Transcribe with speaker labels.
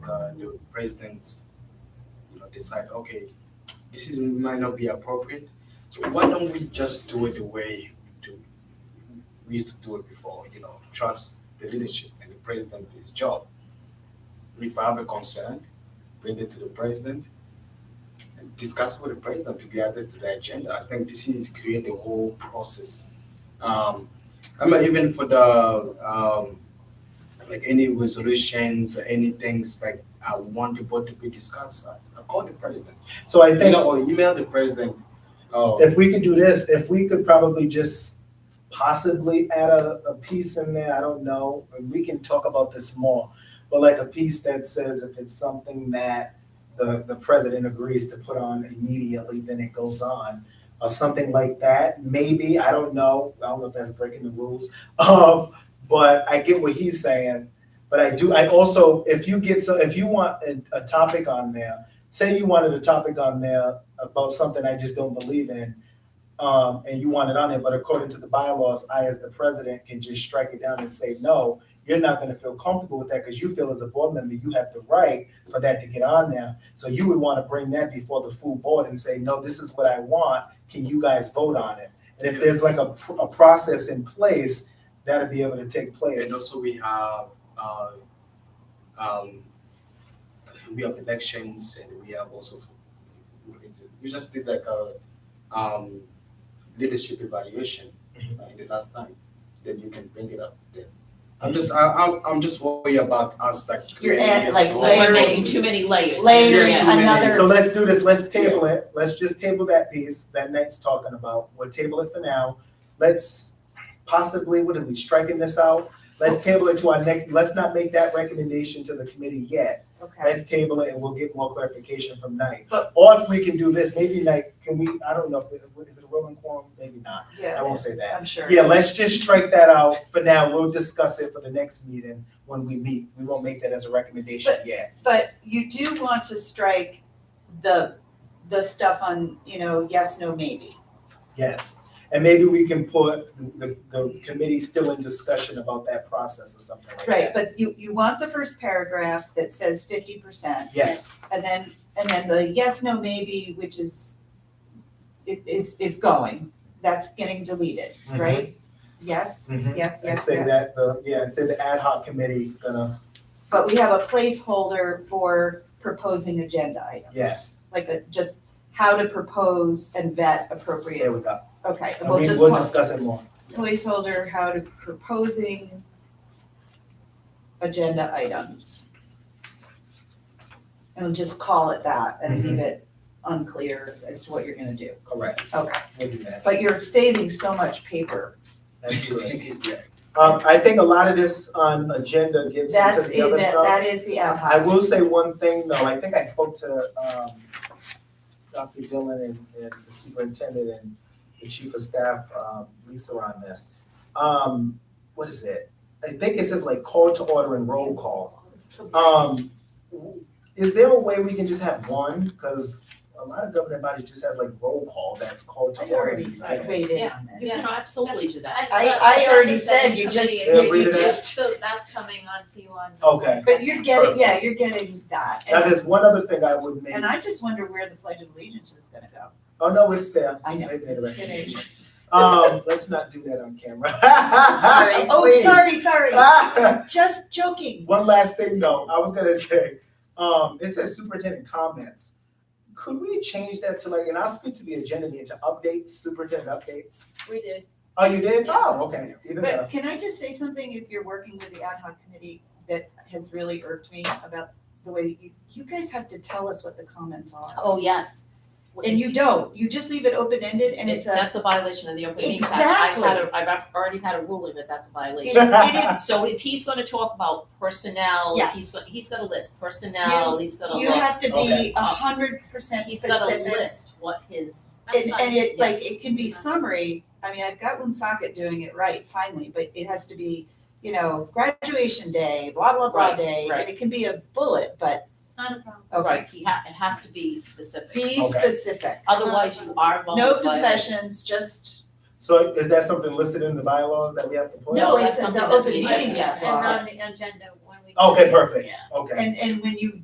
Speaker 1: uh, president, you know, decide, okay, this is might not be appropriate. So why don't we just do it the way we do we used to do it before, you know, trust the leadership and the president is job. If I have a concern, bring it to the president and discuss with the president to be added to the agenda. I think this is create the whole process. Um, I mean, even for the um, like any resolutions, any things like I want the board to be discussed, I, I call the president.
Speaker 2: So I
Speaker 1: I think
Speaker 2: think
Speaker 1: or email the president. Oh,
Speaker 2: if we could do this, if we could probably just possibly add a, a piece in there, I don't know, and we can talk about this more. But like a piece that says if it's something that the, the president agrees to put on immediately, then it goes on. Or something like that, maybe, I don't know, I don't know if that's breaking the rules. Um, but I get what he's saying. But I do, I also, if you get so, if you want a, a topic on there, say you wanted a topic on there about something I just don't believe in, um, and you want it on there, but according to the bylaws, I, as the president, can just strike it down and say, no, you're not gonna feel comfortable with that, because you feel as a board member, you have the right for that to get on there. So you would wanna bring that before the full board and say, no, this is what I want, can you guys vote on it? And if there's like a, pr- a process in place, that'll be able to take place.
Speaker 1: And also we have, uh, um, we have elections and we have also, what is it? we just did like a, um, leadership evaluation
Speaker 2: Mm-hmm.
Speaker 1: uh, in the last time, then you can bring it up then.
Speaker 2: Mm-hmm.
Speaker 1: I'm just, I, I'm, I'm just worried about us like
Speaker 3: You're
Speaker 1: creating
Speaker 3: add-
Speaker 1: this
Speaker 3: like
Speaker 1: whole
Speaker 3: layering
Speaker 4: We're
Speaker 1: process.
Speaker 4: making too many layers.
Speaker 3: Layering
Speaker 2: Yeah,
Speaker 4: Yeah.
Speaker 2: two minutes.
Speaker 3: another-
Speaker 2: So let's do this, let's table it, let's just table that piece that Nate's talking about, we'll table it for now. Let's possibly, what are we striking this out? Let's table it to our next, let's not make that recommendation to the committee yet.
Speaker 3: Okay.
Speaker 2: Let's table it and we'll get more clarification from Nate.
Speaker 3: But-
Speaker 2: Or if we can do this, maybe like, can we, I don't know, if it- is it a rolling quorum? Maybe not.
Speaker 3: Yeah,
Speaker 2: I won't say that.
Speaker 3: I'm sure.
Speaker 2: Yeah, let's just strike that out for now, we'll discuss it for the next meeting when we meet. We won't make that as a recommendation yet.
Speaker 3: But you do want to strike the, the stuff on, you know, yes, no, maybe.
Speaker 2: Yes, and maybe we can put the, the committee still in discussion about that process or something like
Speaker 3: Right,
Speaker 2: that.
Speaker 3: but you, you want the first paragraph that says fifty percent.
Speaker 2: Yes,
Speaker 3: And then, and then the yes, no, maybe, which is, i- is, is going, that's getting deleted, right? Yes,
Speaker 2: Mhm.
Speaker 3: yes, yes,
Speaker 2: Mm-hmm. and
Speaker 3: yes.
Speaker 2: say that, the, yeah, and say the ad hoc committee's gonna,
Speaker 3: But we have a placeholder for proposing agenda items.
Speaker 2: Yes.
Speaker 3: Like a, just how to propose and vet
Speaker 2: there
Speaker 3: appropriate,
Speaker 2: we go.
Speaker 3: okay,
Speaker 2: I
Speaker 3: we'll
Speaker 2: mean,
Speaker 3: just
Speaker 2: we'll
Speaker 3: call-
Speaker 2: discuss it more.
Speaker 3: placeholder, how to proposing agenda items. And we'll just call it that and
Speaker 2: Mm-hmm.
Speaker 3: leave it unclear as to what you're gonna do.
Speaker 2: Correct,
Speaker 3: Okay,
Speaker 2: we'll do that.
Speaker 3: but you're saving so much paper.
Speaker 2: That's good.
Speaker 1: Yeah.
Speaker 2: Um, I think a lot of this on agenda gets
Speaker 3: That's
Speaker 2: into the
Speaker 3: in,
Speaker 2: other
Speaker 3: that
Speaker 2: stuff.
Speaker 3: that is the ad
Speaker 2: I
Speaker 3: hoc.
Speaker 2: will say one thing though, I think I spoke to, um, Dr. Dillon and, and the superintendent and the chief of staff, um, Lisa on this. Um, what is it? I think it says like call to order and roll call. Um, w- is there a way we can just have one? Cause a lot of governing bodies just has like roll call that's called to
Speaker 3: I
Speaker 2: order.
Speaker 3: already
Speaker 2: I think.
Speaker 3: weighed in on
Speaker 4: You
Speaker 3: this.
Speaker 4: can absolutely do that.
Speaker 3: I- I already said you just-
Speaker 2: Yeah, you- read it
Speaker 3: just-
Speaker 4: So that's coming on to you on.
Speaker 2: Okay.
Speaker 3: But you're getting, yeah, you're getting that.
Speaker 2: Now, there's one other thing I would make,
Speaker 3: And I just wonder where the pledge of allegiance is gonna go.
Speaker 2: oh no, it's there.
Speaker 3: I know.
Speaker 2: I made a recommendation.
Speaker 3: Kidding.
Speaker 2: Um, let's not do that on camera.
Speaker 3: Sorry. Oh,
Speaker 2: Please.
Speaker 3: sorry, sorry.
Speaker 2: Ah,
Speaker 3: Just joking.
Speaker 2: One last thing though, I was gonna say, um, it says superintendent comments. Could we change that to like, and I'll speak to the agenda meeting to updates, superintendent updates?
Speaker 4: We did.
Speaker 2: Oh, you did? Oh, okay, even better.
Speaker 3: But can I just say something if you're working with the ad hoc committee that has really irked me about the way you, you guys have to tell us what the comments are.
Speaker 4: Oh, yes.
Speaker 3: And you don't, you just leave it open-ended and it's a,
Speaker 4: That's a violation of the open meetings act. I've had a- I've already had a ruling that that's a violation.
Speaker 3: it's- it is
Speaker 4: So if he's gonna talk about personnel,
Speaker 3: Yes.
Speaker 4: he's, go- he's got a list, personnel, he's got a
Speaker 3: You
Speaker 4: list,
Speaker 3: have to be
Speaker 2: Okay.
Speaker 3: a hundred percent
Speaker 4: he's got a
Speaker 3: specific.
Speaker 4: list, what his.
Speaker 3: And, and it, like,
Speaker 4: Yes.
Speaker 3: it can be summary, I mean, I've got Woonsocket doing it right finally, but it has to be, you know, graduation day, blah, blah, blah
Speaker 4: Right,
Speaker 3: day.
Speaker 4: right.
Speaker 3: And it can be a bullet, but,
Speaker 5: Not a problem.
Speaker 3: okay,
Speaker 4: Right, he ha, it has to be specific,
Speaker 3: be
Speaker 2: Okay.
Speaker 3: specific.
Speaker 4: otherwise you are vulnerable.
Speaker 3: No confessions, just,
Speaker 2: So is that something listed in the bylaws that we have to put?
Speaker 3: no,
Speaker 4: that's
Speaker 3: it's in
Speaker 4: something
Speaker 3: the
Speaker 4: that
Speaker 3: open
Speaker 4: we-
Speaker 3: meetings
Speaker 4: yeah,
Speaker 3: act
Speaker 5: And
Speaker 3: law.
Speaker 5: on the agenda when we.
Speaker 2: Okay, perfect.
Speaker 5: Yeah.
Speaker 2: Okay.
Speaker 3: And, and when you